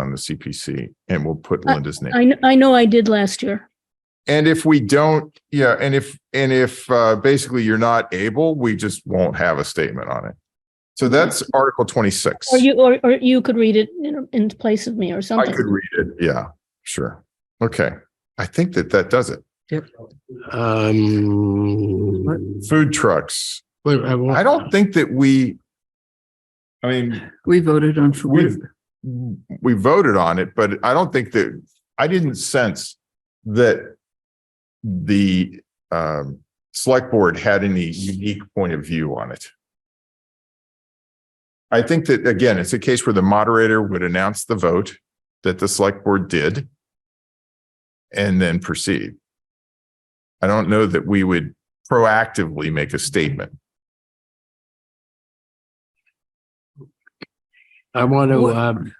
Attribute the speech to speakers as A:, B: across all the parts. A: on the CPC and we'll put
B: I-
A: Linda's name.
B: I, kn- I know I did last year.
A: And if we don't, yeah, and if, and if uh, basically you're not able, we just won't have a statement on it. So that's Article 26.
B: Or you, or, or you could read it in, in place of me or
A: I
B: something.
A: could read it. Yeah, sure. Okay. I think that that does it.
C: Um,
A: Food trucks.
C: wait, I wa-
A: I don't think that we, I mean,
D: We voted on
A: we,
D: food.
A: we voted on it, but I don't think that, I didn't sense that the um, select board had any unique point of view on it. I think that, again, it's a case where the moderator would announce the vote that the select board did and then proceed. I don't know that we would proactively make a statement.
C: I want to,
D: What-
C: um,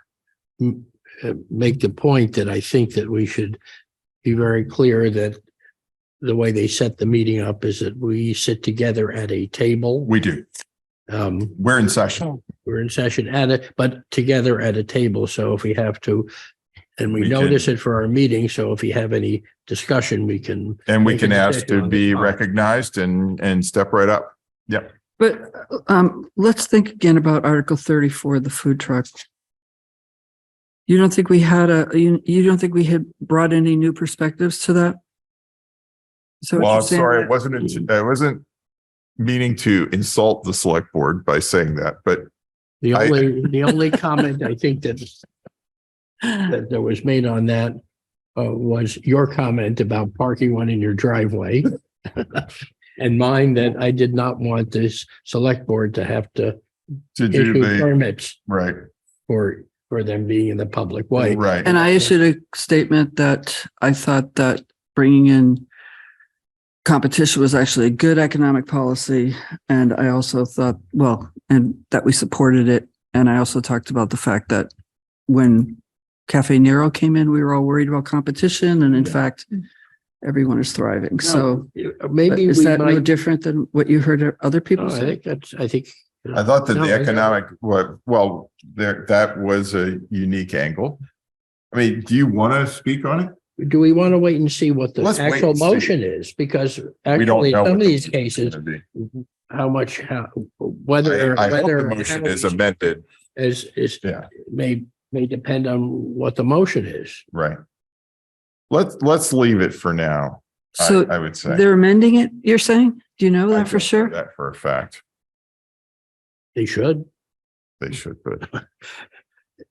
C: m- uh, make the point that I think that we should be very clear that the way they set the meeting up is that we sit together at a table.
A: We do.
C: Um,
A: We're in session.
C: we're in session at it, but together at a table. So if we have to, and we
A: We can-
C: notice it for our meeting. So if you have any discussion, we can
A: And we
C: Make a
A: can ask
C: decision
A: to
C: on the
A: be
C: spot.
A: recognized and, and step right up.
D: But um, let's think again about Article thirty-four, the food truck. You don't think we had a, you, you don't think we had brought any new perspectives to that? So what
A: Well,
D: you're
A: I'm
D: saying
A: sorry,
D: that-
A: it wasn't, I wasn't meaning to insult the select board by saying that, but
C: The
A: I-
C: only, the only comment I think that, that that was made on that uh, was your comment about parking one in your driveway. And mine that I did not want this select board to have to
A: to do
C: issue
A: the,
C: permits
A: right,
C: for, for them being in the public way.
A: right.
D: And I issued a statement that I thought that bringing in competition was actually a good economic policy. And I also thought, well, and that we supported it. And I also talked about the fact that when Cafe Nero came in, we were all worried about competition. And in fact, everyone is thriving. So
C: Uh,
D: but
C: Maybe
D: is
C: we
D: that no
C: might,
D: different than what you heard other
C: No,
D: people
C: I
D: say?
C: think that's, I think.
A: I thought that
C: No,
A: the
C: I-
A: economic, wa- well, there, that was a unique angle. I mean, do you want to speak on it?
C: Do we want to wait and see what the
A: Let's wait
C: actual
A: and see.
C: motion is? Because
A: We don't
C: actually,
A: know
C: some
A: what
C: of
A: the
C: these
A: motion's
C: cases,
A: gonna be.
C: how much, how,
A: I
C: whether.
A: I hope the
C: whether-
A: motion
C: how
A: is
C: these-
A: amended,
C: is is
A: Yeah.
C: may may depend on what the motion is.
A: right? Let's, let's leave it for now, I,
D: So
A: I would say.
D: they're amending it, you're saying? Do you know
A: I
D: that for
A: don't know
D: sure?
A: That for a fact,
C: They should.
A: they should, but
C: to have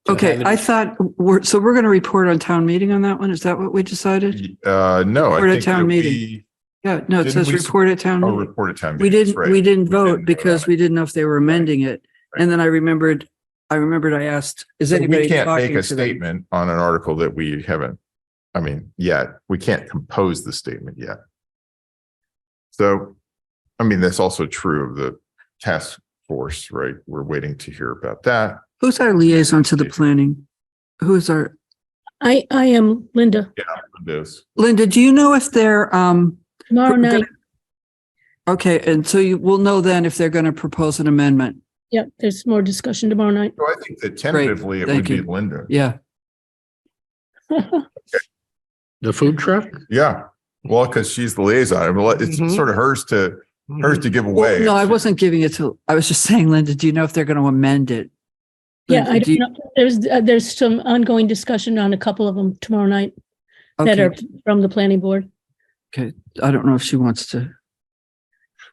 D: Okay,
C: it-
D: I thought we're, so we're going to report on town meeting on that one? Is that what we decided?
A: Uh, no, I
D: We're at
A: think
D: town
A: that
D: meeting.
A: we,
D: Yeah, no, it
A: Didn't
D: says
A: we-
D: report at town
A: oh,
D: meeting.
A: report a time.
D: We didn't, we didn't vote
A: on
D: because
A: it.
D: we didn't know if they were amending it. And then I remembered, I remembered I asked, is
A: We
D: anybody
A: can't make
D: talking
A: a
D: to them?
A: statement on an article that we haven't, I mean, yet, we can't compose the statement yet. So, I mean, that's also true of the task force, right? We're waiting to hear about that.
D: Who's our liaison to the planning? Who's our,
B: I, I am Linda.
A: This,
D: Linda, do you know if they're, um,
B: Tomorrow
D: We're gonna-
B: night,
D: okay, and so you will know then if they're going to propose an amendment?
B: yeah, there's more discussion tomorrow night.
A: so I think that tentatively it would
D: thank
A: be
D: you.
A: Linda.
D: Yeah,
C: The food truck?
A: Yeah, well, because she's the liaison, I mean, it's
C: Mhm.
A: sort of hers to, hers to give
D: Mm-hmm. well,
A: away.
D: no, I wasn't giving it to, I was just saying, Linda, do you know if they're going to amend it?
B: Yeah,
D: Linda,
B: I
D: do you-
B: don't know. There's, uh, there's some ongoing discussion on a couple of them tomorrow night that
D: okay,
B: are from the planning board.
D: I don't know if she wants to,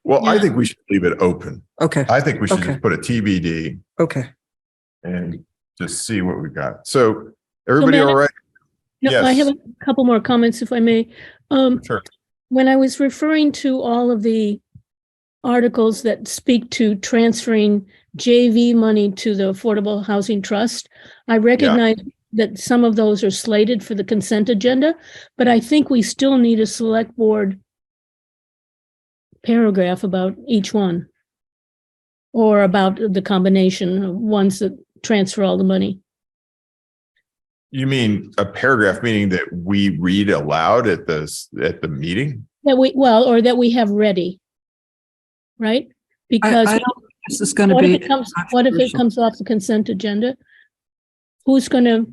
A: Well, I
B: Yeah.
A: think we should leave it open.
D: okay,
A: I think we should just
D: Okay.
A: put a TBD
D: okay.
A: and just see what we got. So everybody
B: Madam-
A: all right?
B: No, I have
A: Yes.
B: a couple more comments if I may. Um,
A: Sure.
B: when I was referring to all of the articles that speak to transferring JV money to the Affordable Housing Trust, I recognize that some of those are slated for the consent agenda, but I think we still need a select board paragraph about each one or about the combination of ones that transfer all the money.
A: You mean a paragraph, meaning that we read aloud at the, s- at the meeting?
B: That we, well, or that we have ready. Right?
D: I, I
B: Because
D: don't, think this is going to
B: What
D: be.
B: if it comes, what if it
D: controversial.
B: comes off the consent agenda? Who's gonna